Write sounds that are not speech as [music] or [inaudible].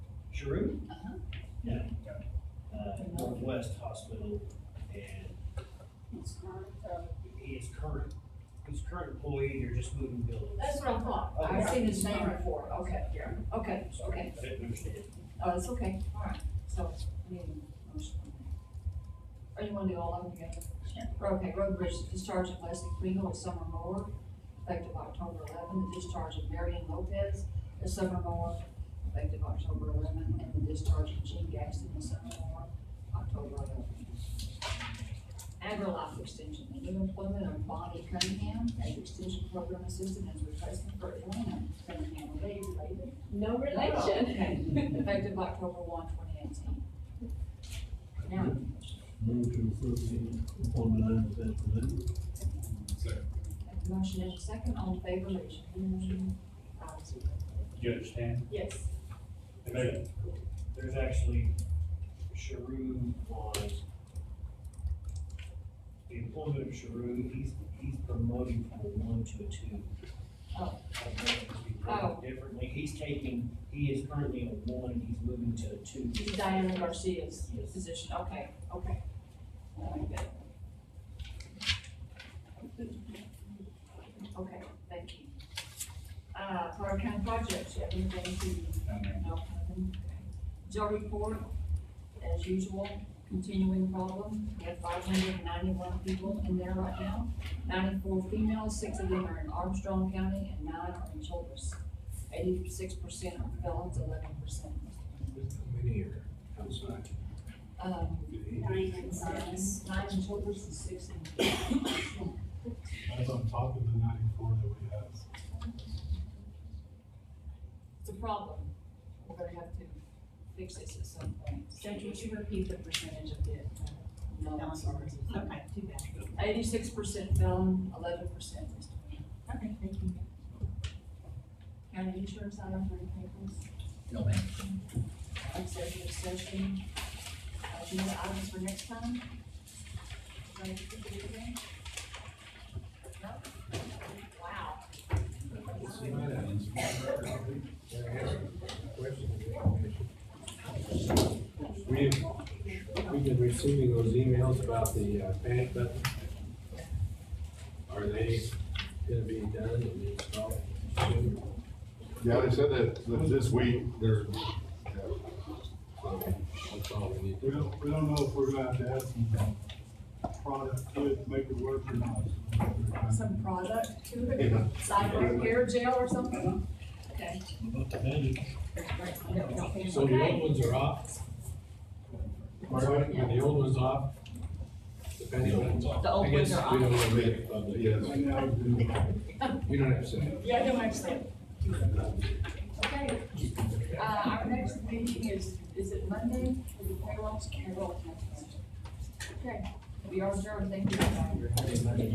Giroux? Uh-huh. No. Uh, Northwest Hospital, and It's current, uh, he is current, he's current employee, they're just moving buildings. That's what I thought. Oh, I've seen his name before. Okay, yeah. Okay, okay. I didn't understand. Oh, it's okay. All right. So, I need a motion on that. Or you want to do all of them together? Okay, road bridge discharge of Leslie Kriegel as summer mower, effective October eleven, the discharge of Marion Lopez as summer mower, effective October eleven, and the discharge of Gene Gaston as summer mower, October eleven. AgriLife extension, the new employment of Bonnie Cunningham as extension program assistant as replacement for Elena Cunningham, are they related? No Okay. [laughs] Effective October one, twenty eighteen. Now, Move to approve the appointment as presented. that motion is second, all in favor, raise your hand. Five zero. Do you understand? Yes. There's- There's actually, Sharu was, the employment of Sharu, he's, he's promoting from a one to a two. Oh. I don't know if it's being worded Differently, he's taking, he is currently a one, he's moving to a two. Diana Garcia's Yes. position, okay, okay. I like that. Okay, thank you. Uh, Carter County Projects, you have anything to? No. nothing? Joe report, as usual, continuing problem, we have five hundred and ninety-one people in there right now. Ninety-four females, six of them are in Armstrong County, and nine are in Childress. Eighty-six percent are felons, eleven percent. Many are outside. Um, Nine and six. Nine in Childress and six in. That's on top of the ninety-four that we have. It's a problem. We're gonna have to fix this at some point. Judge, would you repeat the percentage of the? uh, No, I'm sorry. [laughs] Okay, too bad. Eighty-six percent felon, eleven percent misdemeanor. Okay, thank you. County insurance, I don't have any papers. No, ma'am. Executive session. Uh, do you have items for next time? Ready to do it again? No? Wow. We've, we've been receiving those emails about the uh, panic button. Are they gonna be done and installed soon? Yeah, they said that, that this week, they're, yeah. So, That's all we need. We don't, we don't know if we're gonna have to add some product to it to make it work or not. Some product to it, cyber hair gel or something? Okay. About the magic. So the old ones are off? Pardon? Are the old ones off? The panic buttons off? The old I guess ones are We don't wanna make it public. Yes. Right now, we do. You don't have to say it. Yeah, no, I'm saying. Okay, uh, our next meeting is, is it Monday? Is it payroll? Payroll. Okay, we are adjourned, thank you.